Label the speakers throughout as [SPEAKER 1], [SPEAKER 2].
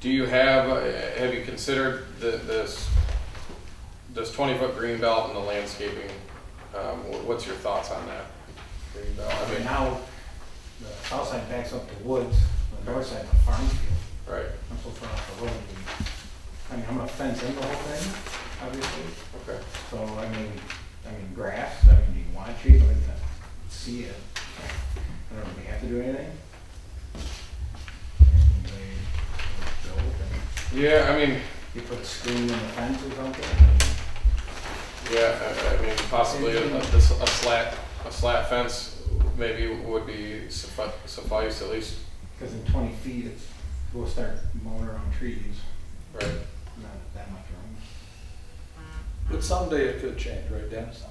[SPEAKER 1] Do you have, uh, have you considered the, this, this twenty foot green belt and the landscaping? Um, wh- what's your thoughts on that? Green belt, I
[SPEAKER 2] Right
[SPEAKER 1] mean,
[SPEAKER 2] now, the south side backs up to woods, the north side a farm field,
[SPEAKER 1] right,
[SPEAKER 2] I'm so far off the road. and- I mean, I'm gonna fence in the whole thing, obviously,
[SPEAKER 1] okay.
[SPEAKER 2] so, I mean, I mean, grass, I mean, do you want trees, I'm gonna see it. I don't really have to do anything. And they build and
[SPEAKER 1] Yeah, I mean,
[SPEAKER 2] You put a screen in the fence or something, and
[SPEAKER 1] yeah, I, I mean, possibly a, a this- a slat, a slat fence maybe would be suffi- suffice at least,
[SPEAKER 2] cause in twenty feet, it's, we'll start mowing around trees,
[SPEAKER 1] right?
[SPEAKER 2] not that much room.
[SPEAKER 3] But someday it could change, right, Dennis?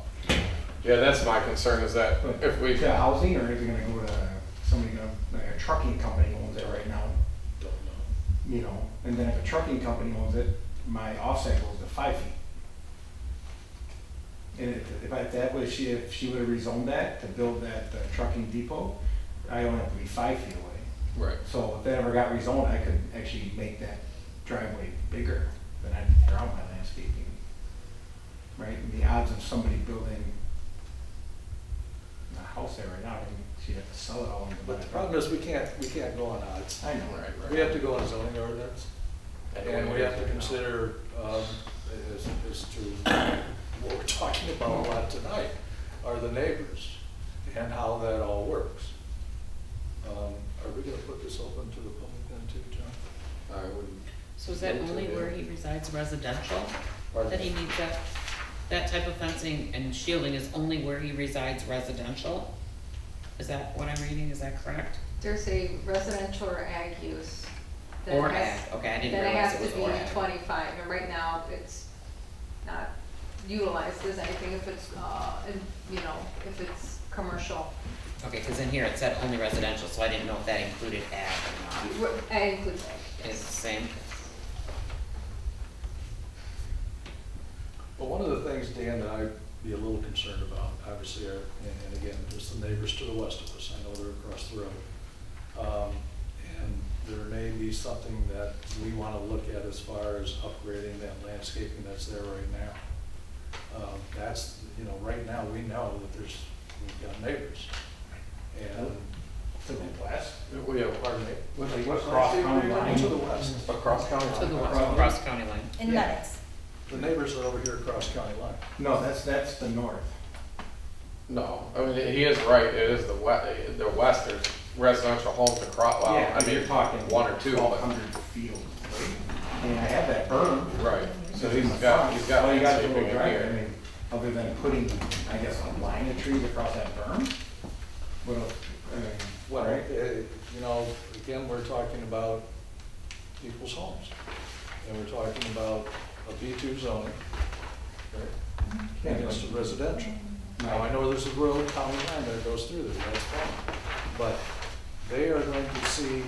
[SPEAKER 1] Yeah, that's my concern is that if we,
[SPEAKER 2] to housing, or is it gonna go to somebody, gonna- like a trucking company owns it right now,
[SPEAKER 3] Don't know.
[SPEAKER 2] you know? And then if a trucking company owns it, my offset goes to five feet. And if- if I, that was, she, if she would've rezoned that to build that uh, trucking depot, I only have to be five feet away.
[SPEAKER 1] right,
[SPEAKER 2] So if that ever got rezoned, I could actually make that driveway bigger, then I'd drown my landscaping. Right, and the odds of somebody building a house there right now, I mean, she'd have to sell it all and buy
[SPEAKER 3] But
[SPEAKER 2] it.
[SPEAKER 3] the problem is, we can't, we can't go on odds.
[SPEAKER 2] I know,
[SPEAKER 1] right,
[SPEAKER 2] right?
[SPEAKER 1] right.
[SPEAKER 3] We have to go on zoning ordinance, and we have to consider, um, as, as to what we're talking about a lot tonight, are the neighbors, and how that all works. Um, Are we gonna put this open to the public then too, John?
[SPEAKER 1] I wouldn't,
[SPEAKER 4] So is that only where he resides residential, that he needs that, that type of fencing and shielding is only where he resides residential? Is that what I'm reading, is that correct?
[SPEAKER 5] There's a residential or ag use. that
[SPEAKER 4] Or
[SPEAKER 5] has-
[SPEAKER 4] ag, okay, I didn't
[SPEAKER 5] That
[SPEAKER 4] realize
[SPEAKER 5] has
[SPEAKER 4] it
[SPEAKER 5] to
[SPEAKER 4] was or
[SPEAKER 5] be
[SPEAKER 4] ag.
[SPEAKER 5] twenty-five, and right now, it's not utilized as anything if it's, uh, in- you know, if it's commercial.
[SPEAKER 4] Okay, cause in here it said only residential, so I didn't know if that included ag or not,
[SPEAKER 5] Wh- Ag includes ag,
[SPEAKER 4] is the
[SPEAKER 5] yes.
[SPEAKER 4] same,
[SPEAKER 3] Well, one of the things, Dan, that I'd be a little concerned about, obviously, are, and and again, there's the neighbors to the west of us, I know they're across the road. Um, And there may be something that we want to look at as far as upgrading that landscaping that's there right now. Um, That's, you know, right now, we know that there's, we've got neighbors. And, Oh.
[SPEAKER 2] To the west,
[SPEAKER 1] we have,
[SPEAKER 3] pardon me?
[SPEAKER 2] like what's cross county line?
[SPEAKER 3] To the west.
[SPEAKER 1] across county line.
[SPEAKER 4] to the west,
[SPEAKER 2] Across-
[SPEAKER 4] across county line.
[SPEAKER 6] In
[SPEAKER 2] Yeah.
[SPEAKER 6] Lennox.
[SPEAKER 3] The neighbors are over here across county line.
[SPEAKER 2] No, that's, that's the north.
[SPEAKER 1] No, I mean, he is right, it is the west, the west, there's residential homes across, well,
[SPEAKER 2] Yeah,
[SPEAKER 1] I mean,
[SPEAKER 2] you're talking.
[SPEAKER 1] one or two,
[SPEAKER 2] Twelve
[SPEAKER 1] but,
[SPEAKER 2] hundred feet, and I have that berm.
[SPEAKER 1] right, so
[SPEAKER 2] in
[SPEAKER 1] he's
[SPEAKER 2] the
[SPEAKER 1] got,
[SPEAKER 2] front.
[SPEAKER 1] he's got
[SPEAKER 2] All you gotta do
[SPEAKER 1] landscaping in
[SPEAKER 2] is drive, I
[SPEAKER 1] here.
[SPEAKER 2] mean, Other than putting, I guess, a line of trees across that berm? What else, I mean,
[SPEAKER 3] Well,
[SPEAKER 2] right?
[SPEAKER 3] eh, you know, again, we're talking about people's homes, and we're talking about a B two zoning, right?
[SPEAKER 2] Yeah,
[SPEAKER 3] Against the residential.
[SPEAKER 2] but-
[SPEAKER 3] Now, I know there's a rural county line that goes through there, that's fine, but they are going to see,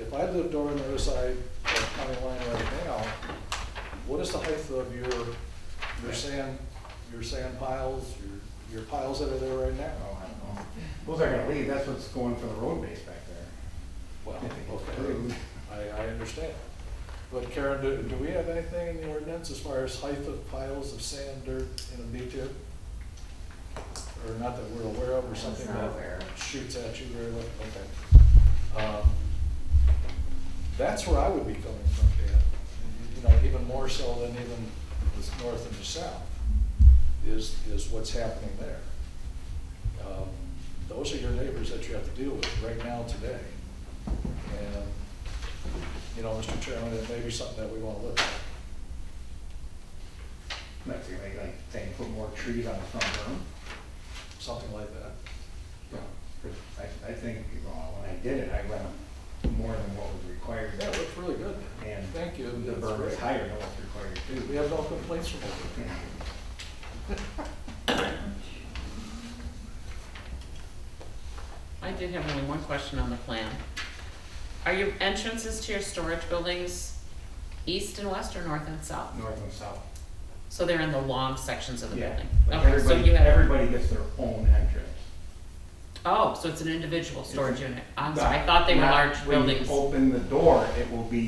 [SPEAKER 3] if I lived over on the other side of the county line right now, what is the height of your, your sand, your sand piles, your, your piles that are there right now?
[SPEAKER 2] Oh, I don't know. Those are gonna leave, that's what's going for the road base back there.
[SPEAKER 3] Well,
[SPEAKER 2] If it gets
[SPEAKER 3] okay.
[SPEAKER 2] approved.
[SPEAKER 3] I, I understand. But Karen, do, do we have anything in the ordinance as far as height of piles of sand, dirt in a B two? Or not that we're aware of, or
[SPEAKER 5] was
[SPEAKER 3] something
[SPEAKER 5] not
[SPEAKER 3] that
[SPEAKER 5] aware of.
[SPEAKER 3] shoots at you very well, okay. Um, That's where I would be coming from, Dan, you know, even more so than even the north and the south, is, is what's happening there. Um, Those are your neighbors that you have to deal with right now, today. And you know, Mr. Chairman, it may be something that we want to look at.
[SPEAKER 2] That's gonna make like, saying put more trees on the front berm.
[SPEAKER 3] something like that.
[SPEAKER 2] I, I think, well, when I did it, I went more than what was required.
[SPEAKER 3] Yeah, it looks really good.
[SPEAKER 2] And
[SPEAKER 3] Thank you.
[SPEAKER 2] The
[SPEAKER 3] That's
[SPEAKER 2] berm is
[SPEAKER 3] great.
[SPEAKER 2] higher than what's required too.
[SPEAKER 3] We have no complaints from over there.
[SPEAKER 4] I did have only one question on the plan. Are your entrances to your storage buildings east and west or north and south?
[SPEAKER 2] North and south.
[SPEAKER 4] So they're in the long sections of the
[SPEAKER 2] Yeah.
[SPEAKER 4] building?
[SPEAKER 2] Like
[SPEAKER 4] Okay, so
[SPEAKER 2] everybody,
[SPEAKER 4] you have,
[SPEAKER 2] everybody gets their own entrance.
[SPEAKER 4] oh, so it's an individual storage
[SPEAKER 2] It's a-
[SPEAKER 4] unit, I'm sorry, I thought they were
[SPEAKER 2] Not
[SPEAKER 4] large
[SPEAKER 2] when you
[SPEAKER 4] buildings.
[SPEAKER 2] Open the door, it will be